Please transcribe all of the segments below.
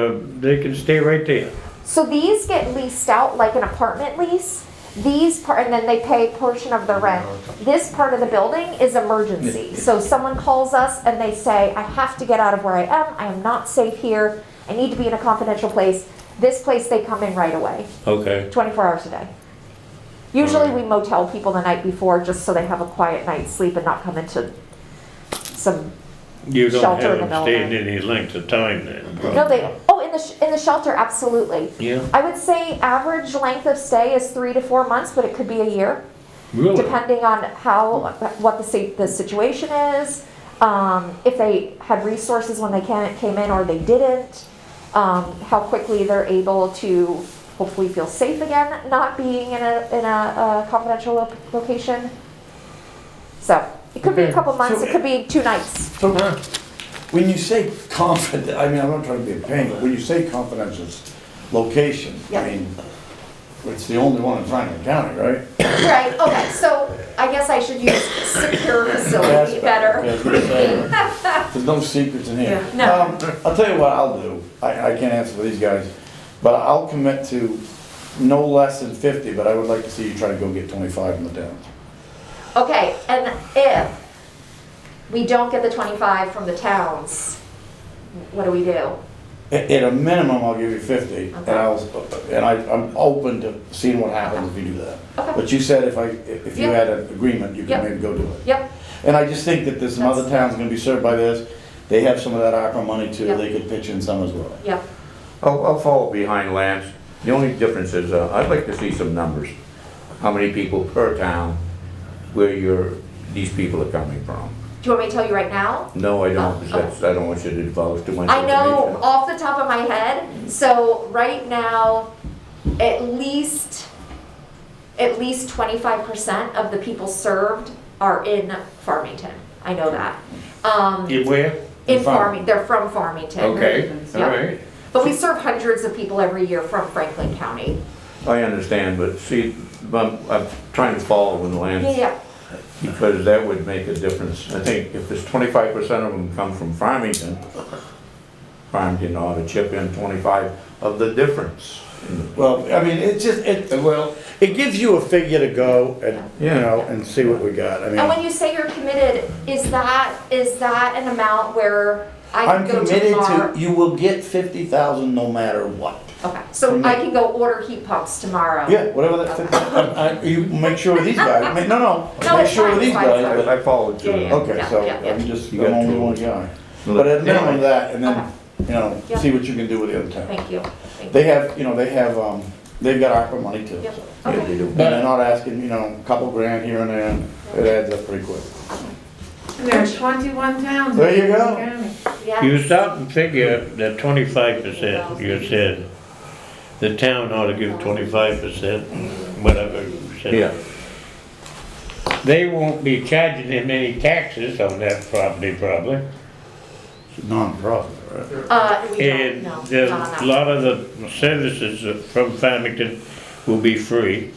Uh, They can stay right there. So these get leased out like an apartment lease. These part, and then they pay a portion of the rent. This part of the building is emergency. So someone calls us and they say, I have to get out of where I am. I am not safe here. I need to be in a confidential place. This place, they come in right away, Okay. 24 hours a day. Usually we motel people the night before just so they have a quiet night's sleep and not come into some You don't Shelter have in the them staying building. any length of time then? No, probably. they, oh, in the, sh- in the shelter, absolutely. Yeah. I would say average length of stay is three to four months, but it could be a year, Really? depending on how, what the sa- the situation is, um, if they had resources when they can, came in or they didn't, um, how quickly they're able to hopefully feel safe again, not being in a, in a, a confidential lo- location. So, it could be a Okay. couple months, So- it could be two nights. So when you say confident, I mean, I'm not trying to be a pain, but when you say confidential s- location, Yeah. I mean, it's the only one in Franklin County, right? Right, okay, so I guess I should use secure facility That's That's what I'm saying. There's no secrets in here. Yeah, no. Um, I'll tell you what I'll do. I, I can't answer for these guys, but I'll commit to no less than fifty, but I would like to see you try to go get twenty-five in the town. Okay, and if we don't get the twenty-five from the towns, what do we do? At, at a minimum, I'll give you fifty, and Okay. I'll, and I, I'm open to seeing what happens if you do that. Okay. But you said if I, if you Yeah. had an agreement, you Yeah. could maybe go do it. Yep, And I just think that there's some other towns gonna be served by this, they have some of that ARPA money too, Yeah. they could pitch in some as well. yep, I'll, I'll follow behind Lance. The only difference is, uh, I'd like to see some numbers. How many people per town where your, these people are coming from? do you want me to tell you right now? No, I don't, because that's, I don't want you to divulge too much I information. know Oh. off the top of my head, so right now, at least, at least twenty-five percent of the people served are in Farmington, I know that. Um, You where? in Farm- Farming, they're from Farmington. Okay, all Yeah. right. But we serve hundreds of people every year from Franklin County. I understand, but see, I'm, I'm trying to follow in Yeah, Lance, yeah, because that would make a difference. I think if there's twenty-five percent of them come from Farmington, Farmington ought to chip in twenty-five of the difference. Well, I mean, it's just, it, well, it gives you a figure to go and, you Yeah. know, and see what we got, I And when mean. you say you're committed, is that, is that an amount where I I'm can go committed to to, tomorrow? you will get fifty thousand no matter what. Okay, so I can go order heat pumps tomorrow? Yeah, whatever that, fifty I- I- you make sure with these guys, I mean, no, No, no, make it's sure fine, with these it's fine, it's guys, fine. but I I followed you. Yeah, yeah. Okay, so yeah. I'm just, I'm You got only two. one guy. But at minimum that, and Okay. then, you know, Yeah. see what you can do with the other town. Thank you, thank you. They have, you know, they have, um, they've got ARPA money too. Yep, so. Yeah, they okay. do. And they're not asking, you know, a couple grand here and there, it adds up pretty quick. And There are 21 towns. in There you Franklin go. County. Yeah, You stop and figure that twenty-five percent, you said, the town ought to give twenty-five percent, whatever you said. Yeah. They won't be charging them any taxes on that property probably. It's a nonprofit, right? uh, we don't, And no, the, not a on that. lot of the services from Farmington will be free.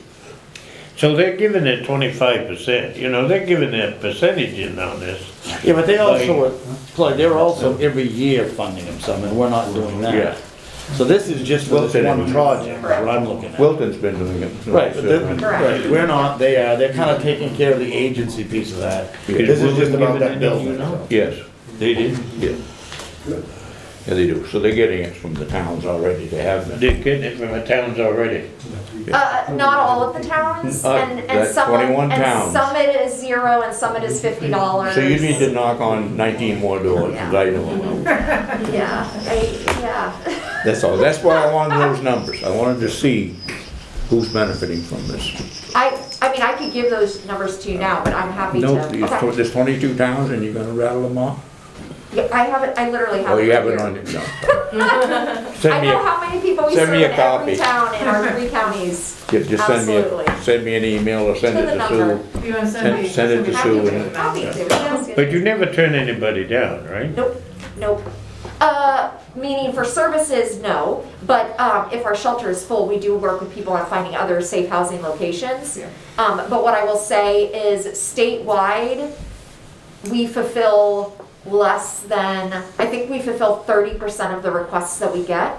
So they're giving their twenty-five percent, you know, they're giving their percentage in on this. Yeah, but they Like- also, Clyde, they're also every year funding them some, and we're not doing Yeah. that. So this is just for this Wilton one and- project, is what I'm looking at. Wilton's been doing it. Right, but they're- Correct. right, we're not, they are, they're kind of taking care of the agency piece of that. Yeah. This is Wilton just giving about that it, you building. know? so. Yes, They did, yeah. Yeah, they do, so they're getting it from the towns already, they have been. they're getting it from the towns already. Uh, not all of the towns, Uh, and, and that's some, are- 21 and towns. some it is zero and some it is fifty dollars. So you need to knock on nineteen more doors, 'cause I know. Yeah, I, yeah. That's all, that's why I wanted those numbers, I wanted to see who's benefiting from this. I, I mean, I could give those numbers to you now, but I'm happy to. No, there's Okay. tw- there's twenty-two towns and you're gonna rattle them off? Yeah, I have it, I literally have it. Oh, you right have it here. on, no. I Send me, know a- how many people we send serve me in a every copy. town in our three counties. ju- just send me, a- Absolutely. send me an email or send To it the to number. Sue. You want to send me? Send- send it to Happy Sue to, and- happy to, yes, yes. But you never turn anybody down, right? Nope, nope. Uh, meaning for services, no, but, um, if our shelter is full, we do work with people on finding other safe housing locations. Um, but what I will say is statewide, we fulfill less than, I think we fulfill thirty percent of the requests that we get.